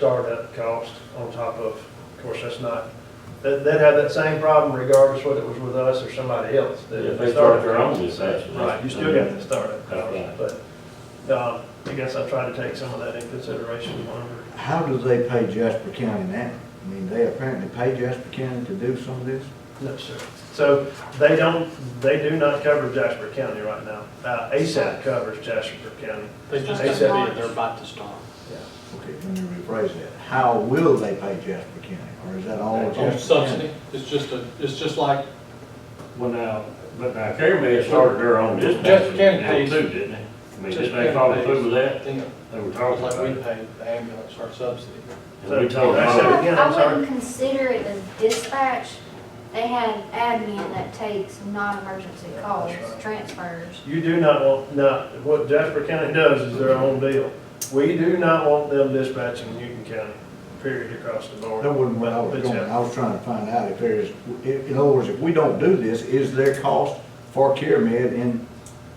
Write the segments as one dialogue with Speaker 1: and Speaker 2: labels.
Speaker 1: startup cost on top of, of course, that's not, that, they'd have that same problem regardless whether it was with us or somebody else. that
Speaker 2: If they
Speaker 1: the
Speaker 2: start
Speaker 1: startup
Speaker 2: their
Speaker 1: cost-
Speaker 2: own dispatch.
Speaker 1: Right, you still got the startup
Speaker 2: Right.
Speaker 1: cost, but, um, I guess I try to take some of that in consideration whenever.
Speaker 3: How do they pay Jasper County now? I mean, they apparently pay Jasper County to do some of this?
Speaker 1: No, sir. So they don't, they do not cover Jasper County right now. Uh, ASAP covers Jasper County.
Speaker 4: They just
Speaker 1: They
Speaker 4: got
Speaker 1: said-
Speaker 4: bid, they're about to start.
Speaker 3: Okay, let me rephrase that. How will they pay Jasper County? Or is that all
Speaker 2: On
Speaker 3: Jasper
Speaker 4: On
Speaker 3: County?
Speaker 4: subsidy, it's just a, it's just like,
Speaker 2: Well, now, uh, but now Caravan started their own dispatch.
Speaker 4: Just County pays.
Speaker 2: Too, didn't they? I mean,
Speaker 4: Just
Speaker 2: didn't they follow
Speaker 4: County
Speaker 2: through with
Speaker 4: I
Speaker 2: that? Oh,
Speaker 4: think,
Speaker 2: They were talking
Speaker 4: like
Speaker 2: about
Speaker 4: we
Speaker 2: it.
Speaker 4: pay the ambulance our subsidy.
Speaker 2: And we told them,
Speaker 1: I
Speaker 2: all-
Speaker 1: said- again, I'm
Speaker 5: I
Speaker 1: sorry.
Speaker 5: wouldn't consider it as dispatch. They had admin that takes non-emergency calls, transfers.
Speaker 1: You do not want, not, what Jasper County does is their own deal. We do not want them dispatching Newton County, period, across the board.
Speaker 3: That wasn't what I was
Speaker 1: But-
Speaker 3: going,
Speaker 1: but yeah.
Speaker 3: I was trying to find out if there is, in in other words, if we don't do this, is there cost for CareMed in,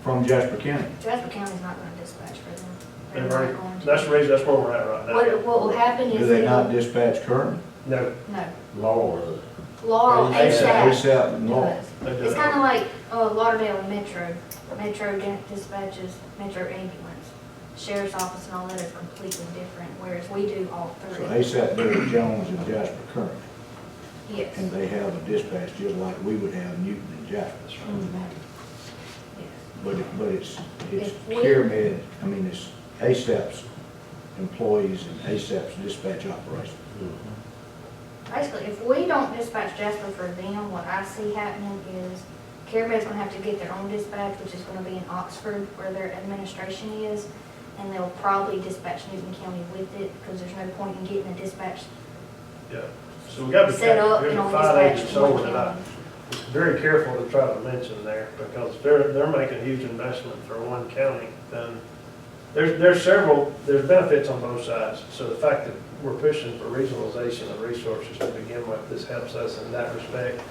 Speaker 3: from Jasper County?
Speaker 5: Jasper County's not gonna dispatch for them. They're
Speaker 1: They've
Speaker 5: not
Speaker 1: already-
Speaker 5: going to.
Speaker 1: That's the reason, that's where we're at right now.
Speaker 5: What, what will happen
Speaker 3: Do
Speaker 5: is.
Speaker 3: they not
Speaker 5: it'll-
Speaker 3: dispatch currently?
Speaker 1: No,
Speaker 5: No,
Speaker 2: Laura,
Speaker 5: Laurel
Speaker 1: They-
Speaker 5: ASAP
Speaker 3: ASAP and Law.
Speaker 5: does.
Speaker 1: they do
Speaker 5: It's
Speaker 1: not.
Speaker 5: kinda like, uh, Lauderdale Metro. Metro di- dispatches Metro ambulance. Sheriff's office and all that are completely different, whereas we do all
Speaker 3: So
Speaker 5: three.
Speaker 3: ASAP, Billy Jones and Jasper currently,
Speaker 5: Yes.
Speaker 3: and they have a dispatch just like we would have Newton and Jasper.
Speaker 5: Mhm. Yes.
Speaker 3: But it, but it's, it's
Speaker 5: If we-
Speaker 3: CareMed, I mean, it's ASAP's employees and ASAP's dispatch operation.
Speaker 5: Basically, if we don't dispatch Jasper for them, what I see happening is CareMed's gonna have to get their own dispatch, which is gonna be in Oxford where their administration is. And they'll probably dispatch Newton County with it, because there's no point in getting a dispatch
Speaker 1: yeah. So we gotta be
Speaker 5: set
Speaker 1: careful.
Speaker 5: up
Speaker 1: There's
Speaker 5: and
Speaker 1: a
Speaker 5: on
Speaker 1: five
Speaker 5: dispatch.
Speaker 1: agent
Speaker 5: to
Speaker 1: sold
Speaker 5: Newton
Speaker 1: that I
Speaker 5: County.
Speaker 1: very careful to try to mention there, because they're, they're making a huge investment for one county, then there's, there's several, there's benefits on both sides. So the fact that we're pushing for regionalization of resources to begin with, this helps us in that respect.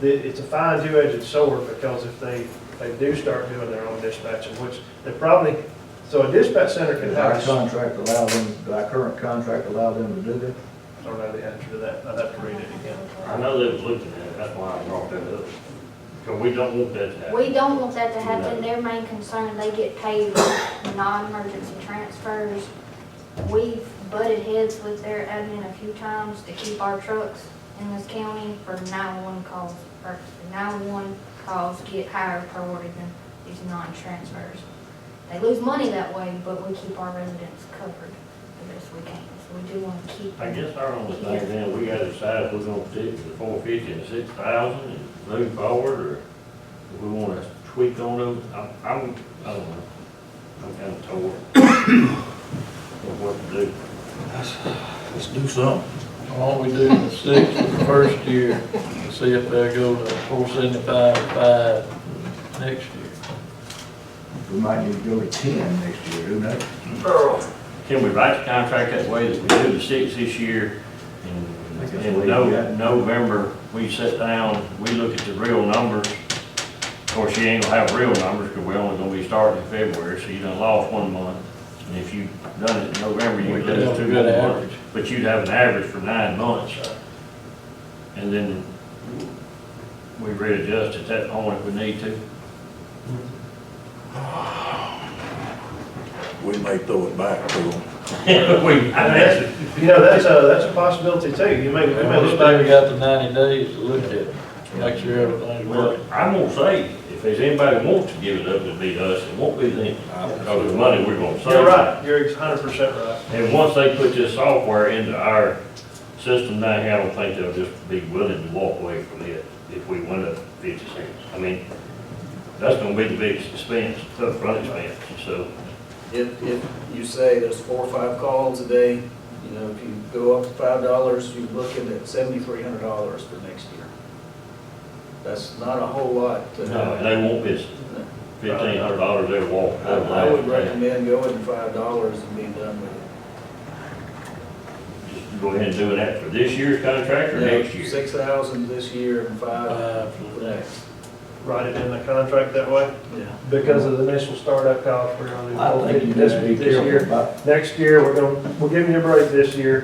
Speaker 1: The- It's a fine two-edged sword, because if they, they do start doing their own dispatching, which they probably, so a dispatch center can
Speaker 3: Does
Speaker 1: have.
Speaker 3: our contract allow them, does our current contract allow them to do that?
Speaker 1: I don't know the answer to that, I'd have to read it again.
Speaker 2: I know they was looking at it, that's why I brought that up. Because we don't want that to happen.
Speaker 5: We don't want that to happen. Their main concern, they get paid with non-emergency transfers. We've butted heads with their admin a few times to keep our trucks in this county for 911 calls, or 911 calls get higher priority than these non-transfers. They lose money that way, but we keep our residents covered the best we can. So we do want to keep
Speaker 2: I
Speaker 5: them.
Speaker 2: guess our only thing then, we gotta decide if we're gonna stick to the four fifty and six thousand and move forward, or if we wanna tweak on them, I'm, I'm, I don't know. I'm kinda torn of what to do.
Speaker 6: Let's do something.
Speaker 7: All we do is six for the first year, and see if they'll go to four seventy-five, five next year.
Speaker 3: We might need to go to ten next year, who knows?
Speaker 2: Can we write the contract that way that we do the six this year?
Speaker 3: I think
Speaker 2: And
Speaker 3: that's
Speaker 2: in
Speaker 3: the way you got
Speaker 2: No-
Speaker 3: it.
Speaker 2: November, we sit down, we look at the real numbers. Of course, you ain't gonna have real numbers, because we're only gonna be starting in February, so you done lost one month. And if you done it in November, you
Speaker 7: We
Speaker 2: would lose
Speaker 7: have a
Speaker 2: two
Speaker 7: good
Speaker 2: more
Speaker 7: average.
Speaker 2: months. But you'd have an average for nine months. And then we readjust at that point if we need to.
Speaker 6: We may throw it back to them.
Speaker 2: We,
Speaker 1: I mean, that's, you know, that's a, that's a possibility too, you may, you may
Speaker 7: Well,
Speaker 1: look
Speaker 7: This
Speaker 1: back
Speaker 7: baby
Speaker 1: and go,
Speaker 7: got the ninety days to look at it, make sure everything's
Speaker 2: Well,
Speaker 7: working.
Speaker 2: I'm gonna say, if there's anybody wants to give it up, it'd be us, it won't be them, because the money we're gonna save.
Speaker 1: you're right, you're hundred percent right.
Speaker 2: And once they put this software into our system down here, I don't think they'll just be willing to walk away from it if we went up fifty cents. I mean, that's gonna be the biggest expense, upfront expense, so.
Speaker 8: If, if you say there's four or five calls a day, you know, if you go up to five dollars, you're looking at seventy-three hundred dollars for next year. That's not a whole lot to
Speaker 2: No,
Speaker 8: have.
Speaker 2: they won't miss fifteen hundred dollars they walk.
Speaker 8: I I would recommend going to five dollars and being done with it.
Speaker 2: Just Go ahead and do that for this year's contract or next year.
Speaker 8: Six thousand this year and five
Speaker 7: Five for
Speaker 8: for
Speaker 7: the next.
Speaker 8: next.
Speaker 1: Write it in the contract that way.
Speaker 8: Yeah.
Speaker 1: Because of the initial startup cost, we're gonna do
Speaker 3: I
Speaker 1: four
Speaker 3: think
Speaker 1: fifty
Speaker 3: you
Speaker 1: this
Speaker 3: need to
Speaker 1: week,
Speaker 3: be
Speaker 1: this
Speaker 3: careful
Speaker 1: year.
Speaker 3: about
Speaker 1: Next year, we're gonna, we're giving you a break this year.